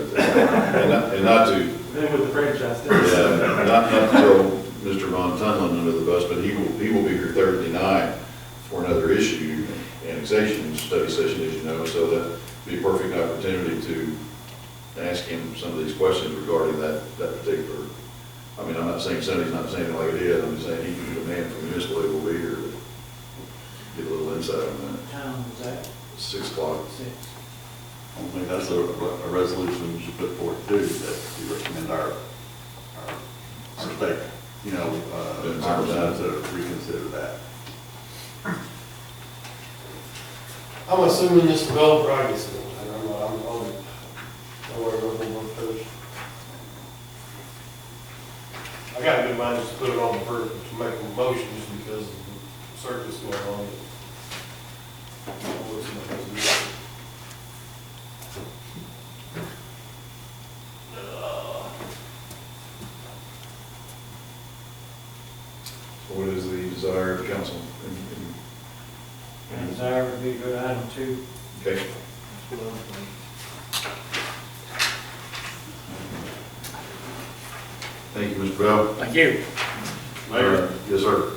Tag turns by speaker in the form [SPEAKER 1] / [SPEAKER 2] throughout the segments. [SPEAKER 1] And not- and not to,
[SPEAKER 2] Then with the franchise, there's
[SPEAKER 1] yeah, not, not to throw Mr. Von Tunlin under the bus, but he will, he will be here Thursday night for another issue, annexation study session, as you know, so that'd be a perfect opportunity to ask him some of these questions regarding that, that particular, I mean, I'm not saying Sonny's not saying it like it is, I'm just saying he can demand from his legal will be here, to get a little insight on that.
[SPEAKER 3] What time was that?
[SPEAKER 1] Six o'clock,
[SPEAKER 3] Six.
[SPEAKER 4] I think that's a, a resolution we should put forth too, that we recommend our, our, our state, you know, uh, our residents to reconsider that.
[SPEAKER 5] I'm assuming this developer, I guess, I don't know, I'm, I'm, don't worry about the work first. I got a good mind just to put it on the first, to make a motion just because of the circus going on. What's my business?
[SPEAKER 1] what is the desire of council? And-
[SPEAKER 3] And desire would be to go to item two.
[SPEAKER 1] and- Okay, thank you, Mr. Bell.
[SPEAKER 3] Thank you.
[SPEAKER 6] Uh, Mayor,
[SPEAKER 1] Yes, sir.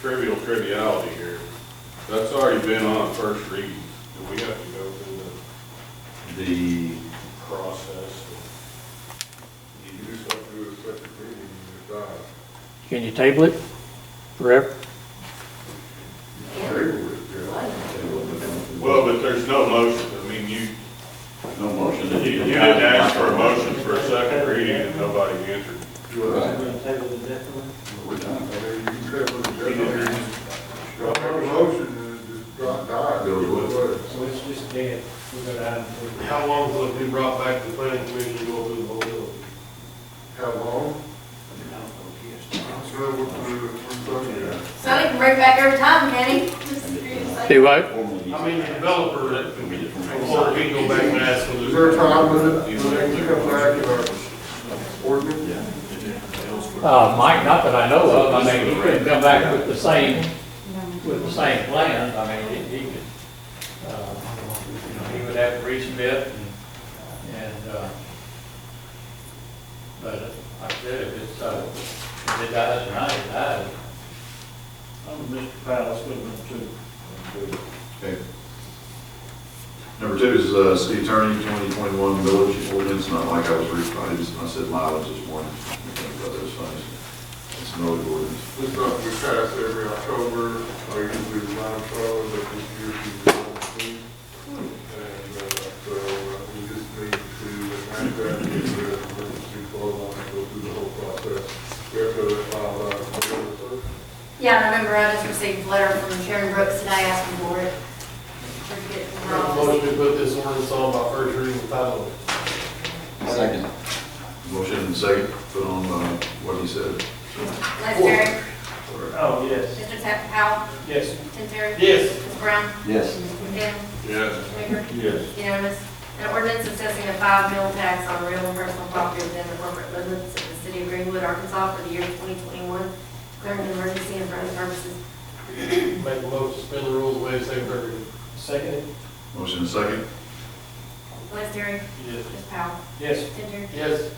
[SPEAKER 6] trivial triviality here, that's already been on first reading, do we have to go through the
[SPEAKER 1] The,
[SPEAKER 6] process? You just have to do a second reading and decide.
[SPEAKER 7] Can you table it forever?
[SPEAKER 6] Well, but there's no motion, I mean, you,
[SPEAKER 4] No motion.
[SPEAKER 6] you you didn't ask for a motion for a second reading and nobody answered.
[SPEAKER 3] We're gonna table the death one.
[SPEAKER 4] We're done.
[SPEAKER 6] uh,
[SPEAKER 3] So it's just dead. We'll go to item two.
[SPEAKER 5] How long will it be brought back to the planning commission to go through the whole bill? How long?
[SPEAKER 8] Sonny can bring it back every time, can he? Just for you to say.
[SPEAKER 7] Do what?
[SPEAKER 5] I mean, the developer, before we go back and ask them. to-
[SPEAKER 7] Uh, Mike, not that I know of, I mean, he couldn't come back with the same, with the same plans, I mean, he, he could, uh, you know, he would have to resubmit and, and, uh, but uh, like I said, if it's, uh, if it dies tonight, it dies.
[SPEAKER 3] Oh, Mr. Palace, go to two.
[SPEAKER 1] okay. Number two is, uh, city attorney, twenty twenty-one village ordinance, not like I was reading, I just, I said mileage this morning. I think about those things. It's an old ordinance.
[SPEAKER 6] This stuff we pass every October, I usually remind fellows that this year we don't see. And, uh, so uh, we just need to enact that, get rid of emergency clause, and uh, go through the whole process. We have to file uh, notice.
[SPEAKER 8] Yeah, I remember I just received a letter from Sharon Brooks today asking for it. Forget it from her office.
[SPEAKER 5] Motion to put this ordinance on by first reading and title.
[SPEAKER 4] Second.
[SPEAKER 1] Motion and second, put on, uh, what he said.
[SPEAKER 8] Les Terry,
[SPEAKER 3] Oh, yes.
[SPEAKER 8] Mr. Tap- Powell,
[SPEAKER 3] Yes.
[SPEAKER 8] Tim Terry.
[SPEAKER 5] Yes.
[SPEAKER 8] Ms. Brown.
[SPEAKER 4] Yes.
[SPEAKER 8] McDaniel.
[SPEAKER 6] Yes.
[SPEAKER 8] Schaefer.
[SPEAKER 6] Yes.
[SPEAKER 8] Unanimous. An ordinance assessing a five mil tax on real and personal property within the corporate limits of the city of Greenwood, Arkansas for the year 2021, declaring an emergency and for other purposes.
[SPEAKER 5] Make a motion, to suspend the rules, waive second, third reading.
[SPEAKER 3] Second?
[SPEAKER 1] Motion and second,
[SPEAKER 8] Les Terry.
[SPEAKER 5] Yes.
[SPEAKER 8] Ms. Powell.
[SPEAKER 3] Yes.
[SPEAKER 8] Tim Terry.
[SPEAKER 5] Yes,
[SPEAKER 8] Ms.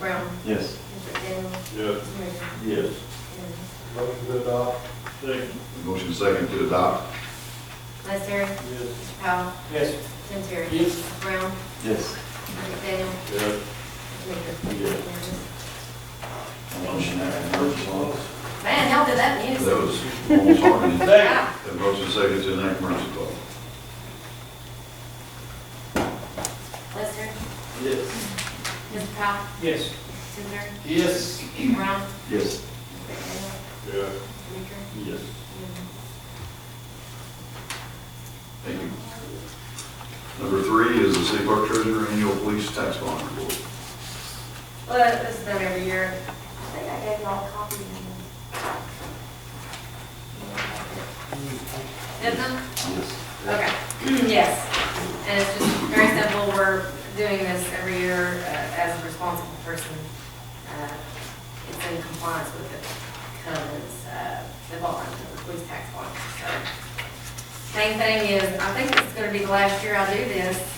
[SPEAKER 8] Brown.
[SPEAKER 4] Yes.
[SPEAKER 8] Mr. McDaniel.
[SPEAKER 6] Yes.
[SPEAKER 8] Ms. Major.
[SPEAKER 6] Yes.
[SPEAKER 8] Unanimous.
[SPEAKER 5] motion to adopt.
[SPEAKER 3] Second.
[SPEAKER 1] motion and second to adopt.
[SPEAKER 8] Les Terry.
[SPEAKER 5] Yes.
[SPEAKER 8] Mr. Powell.
[SPEAKER 3] Yes.
[SPEAKER 8] Tim Terry.
[SPEAKER 5] Yes.
[SPEAKER 8] Ms. Brown.
[SPEAKER 4] Yes.
[SPEAKER 8] Mr. McDaniel.
[SPEAKER 6] Yes.
[SPEAKER 8] Mr. Maker.
[SPEAKER 4] Motion.
[SPEAKER 8] Man, how did that
[SPEAKER 1] That
[SPEAKER 8] news?
[SPEAKER 1] was almost harmony.
[SPEAKER 8] Wow.
[SPEAKER 1] And motion and second to enact emergency clause.
[SPEAKER 8] Lester,
[SPEAKER 5] Yes.
[SPEAKER 8] Mr. Powell,
[SPEAKER 3] Yes.
[SPEAKER 8] Mr.
[SPEAKER 5] Yes.
[SPEAKER 8] Turner, Brown,
[SPEAKER 4] Yes.
[SPEAKER 8] Mr.
[SPEAKER 6] Yes.
[SPEAKER 8] Maker.
[SPEAKER 4] Yes.
[SPEAKER 1] Thank you. Number three is the city clerk treasurer annual police tax bond report.
[SPEAKER 8] Well, Uh, this is done every year. I think I gave y'all a copy. Did them?
[SPEAKER 4] Yes.
[SPEAKER 8] Okay, yes. And it's just very simple, we're doing this every year uh, as a responsible person. Uh, It's in compliance with the covenants, uh, the bond, the police tax bond. So Main thing is, I think it's gonna be the last year I do this, um,